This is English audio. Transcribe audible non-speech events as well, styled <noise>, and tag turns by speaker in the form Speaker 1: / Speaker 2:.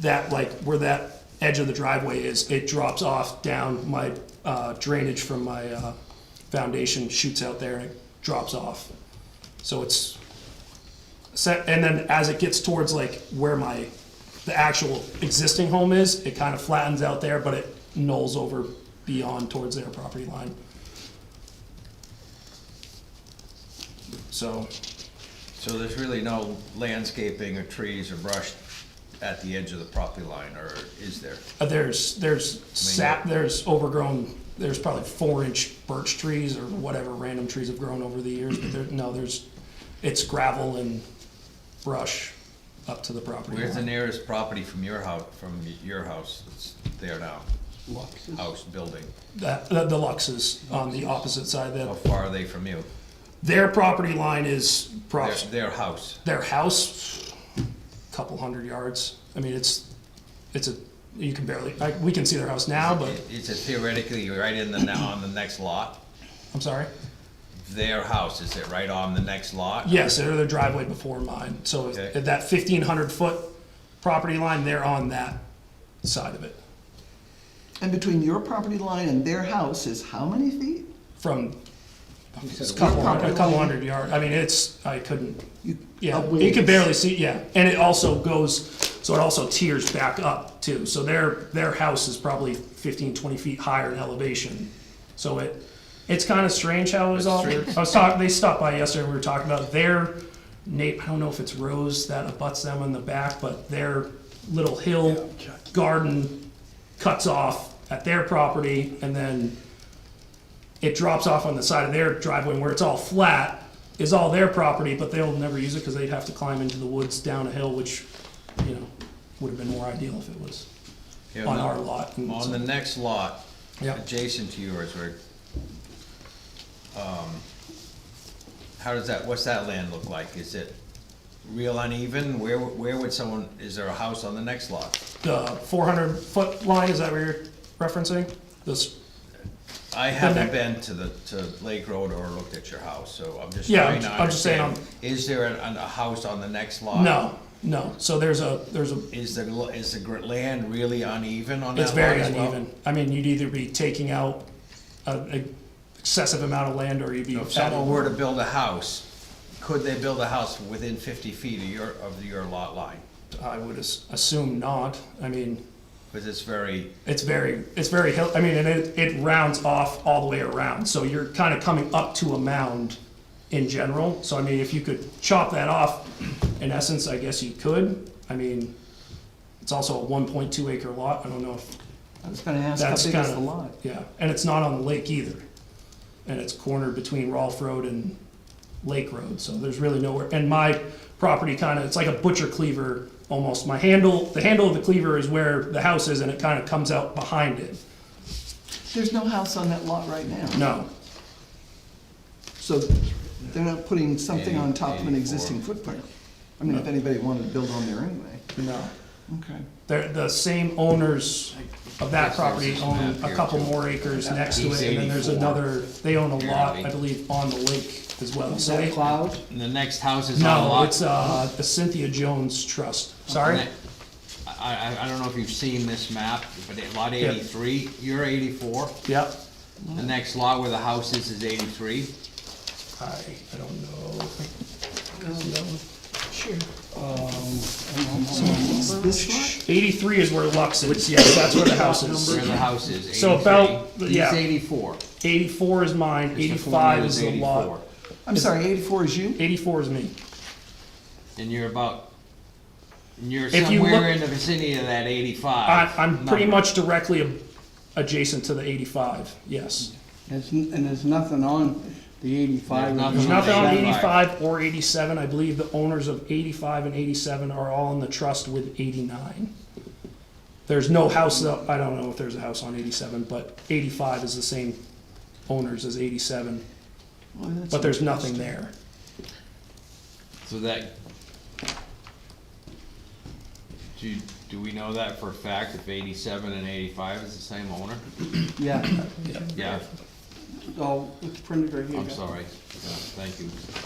Speaker 1: that like where that edge of the driveway is, it drops off down my uh, drainage from my uh, foundation shoots out there and it drops off. So it's set, and then as it gets towards like where my the actual existing home is, it kind of flattens out there, but it knolls over beyond towards their property line. So
Speaker 2: So there's really no landscaping or trees or brush at the edge of the property line, or is there?
Speaker 1: Uh, There's, there's sap, there's overgrown, there's probably four inch birch trees or whatever random trees have grown over the years, but there, no, there's, it's gravel and brush up to the property
Speaker 2: Where's the
Speaker 1: line.
Speaker 2: nearest property from your house, from your house that's there now? House, building,
Speaker 1: That, the the Lux is on the opposite side,
Speaker 2: how
Speaker 1: that,
Speaker 2: far are they from you?
Speaker 1: their property line is
Speaker 2: Their,
Speaker 1: props,
Speaker 2: their house,
Speaker 1: their house, couple hundred yards. I mean, it's, it's a, you can barely, like, we can see their house now, but,
Speaker 2: is it theoretically right in the, now on the next lot?
Speaker 1: I'm sorry.
Speaker 2: Their house, is it right on the next lot?
Speaker 1: Yes, they're the driveway before mine, so
Speaker 2: Okay.
Speaker 1: at that fifteen hundred foot property line, they're on that side of it,
Speaker 3: And between your property line and their house is how many feet?
Speaker 1: from a
Speaker 3: your
Speaker 1: couple, hun-
Speaker 3: property
Speaker 1: a couple
Speaker 3: line-
Speaker 1: hundred yard, I mean, it's, I couldn't,
Speaker 3: You-
Speaker 1: yeah,
Speaker 3: a
Speaker 1: you
Speaker 3: ways.
Speaker 1: could barely see, yeah, and it also goes, so it also tears back up too, so their, their house is probably 15, 20 feet higher in elevation, so it, it's kinda strange how it was all, I was talking, they stopped by yesterday, and we were talking about their Nate, I don't know if it's Rose that abuts them in the back, but their little hill garden cuts off at their property and then it drops off on the side of their driveway where it's all flat is all their property, but they'll never use it because they'd have to climb into the woods down a hill, which, you know, would have been more ideal if it was
Speaker 2: Yeah,
Speaker 1: on
Speaker 2: no.
Speaker 1: our lot. and
Speaker 2: On
Speaker 1: so-
Speaker 2: the next lot,
Speaker 1: Yeah.
Speaker 2: adjacent to yours, where, um, how does that, what's that land look like? Is it real uneven? Where, where would someone, is there a house on the next lot?
Speaker 1: The four hundred foot line, is that what you're referencing? This,
Speaker 2: I haven't been to the, to Lake Road or looked at your house, so I'm just
Speaker 1: Yeah,
Speaker 2: trying to
Speaker 1: I'm- I'm just saying,
Speaker 2: understand. Is there a, a house on the next lot?
Speaker 1: no, no, so there's a, there's a
Speaker 2: Is the, lo- is the gr- land really uneven on that
Speaker 1: It's
Speaker 2: lot
Speaker 1: very
Speaker 2: as well?
Speaker 1: uneven. I mean, you'd either be taking out an excessive amount of land or you'd be.
Speaker 2: If someone were to build a house, could they build a house within fifty feet of your, of your lot line?
Speaker 1: I would as- assume not. I mean,
Speaker 2: Because it's very,
Speaker 1: it's very, it's very hill, I mean, and it, it rounds off all the way around. So you're kind of coming up to a mound in general. So I mean, if you could chop that off, in essence, I guess you could. I mean, it's also a one point two acre lot. I don't know if
Speaker 3: I was gonna ask, how
Speaker 1: That's
Speaker 3: big
Speaker 1: kind
Speaker 3: is
Speaker 1: of
Speaker 3: the
Speaker 1: <laughs>
Speaker 3: lot?
Speaker 1: Yeah, and it's not on the lake either. And it's cornered between Rolfe Road and Lake Road, so there's really nowhere. And my property kind of, it's like a butcher cleaver almost. My handle, the handle of the cleaver is where the house is and it kind of comes out behind it.
Speaker 3: There's no house on that lot right now.
Speaker 1: No,
Speaker 3: So they're not putting something on top of an
Speaker 2: Eighty-
Speaker 3: existing footprint. I mean, if anybody wanted to build on there anyway.
Speaker 1: no.
Speaker 3: Okay.
Speaker 1: They're, the same owners of that
Speaker 2: Yes, there's
Speaker 1: property
Speaker 2: this
Speaker 1: own
Speaker 2: map
Speaker 1: a
Speaker 2: here,
Speaker 1: couple
Speaker 2: too.
Speaker 1: more acres
Speaker 2: That
Speaker 1: next to
Speaker 2: piece
Speaker 1: it. And then there's
Speaker 2: 84.
Speaker 1: another, they own a lot, I
Speaker 2: Apparently.
Speaker 1: believe, on the lake as well.
Speaker 3: Is
Speaker 1: So
Speaker 3: that
Speaker 1: they,
Speaker 3: cloud?
Speaker 2: the next house is on a
Speaker 1: no,
Speaker 2: lot.
Speaker 1: it's, uh, the Cynthia Jones Trust. Sorry?
Speaker 2: I, I, I don't know if you've seen this map, but at lot
Speaker 1: Yeah.
Speaker 2: eighty-three, you're eighty-four,
Speaker 1: Yep.
Speaker 2: the next lot where the house is is eighty-three.
Speaker 1: I, I don't know.
Speaker 3: This lot?
Speaker 1: Eighty-three is where Lux is, yes, that's where the house
Speaker 2: Where
Speaker 1: is.
Speaker 2: the house is, eighty-three.
Speaker 1: So about- yeah.
Speaker 2: He's eighty-four.
Speaker 1: Eighty-four is mine,
Speaker 2: Mr.
Speaker 1: eighty-five
Speaker 2: Fournier
Speaker 1: is the lot.
Speaker 2: 84.
Speaker 3: I'm sorry, eighty-four is you?
Speaker 1: Eighty-four is me.
Speaker 2: And you're about, and you're
Speaker 1: If you
Speaker 2: somewhere
Speaker 1: look-
Speaker 2: in the vicinity of that
Speaker 1: I,
Speaker 2: eighty-five.
Speaker 1: I'm pretty
Speaker 2: number.
Speaker 1: much directly ab- adjacent to the eighty-five, yes.
Speaker 4: There's n- And there's nothing on the eighty-five.
Speaker 2: There's
Speaker 1: There's
Speaker 2: Mhm.
Speaker 1: nothing on
Speaker 2: 85.
Speaker 1: eighty-five or eighty-seven, I believe the owners of eighty-five and eighty-seven are all in the trust with eighty-nine. There's no house, though- I don't know if there's a house on eighty-seven, but eighty-five is the same owners as eighty-seven,
Speaker 3: Boy, that's
Speaker 1: but there's nothing there.
Speaker 2: So that. Do, you- do we know that for a fact, if eighty-seven and eighty-five is the same owner?
Speaker 4: Yeah,
Speaker 2: Yeah,
Speaker 4: oh, it's printed right here.
Speaker 2: I'm sorry, Yeah, thank you.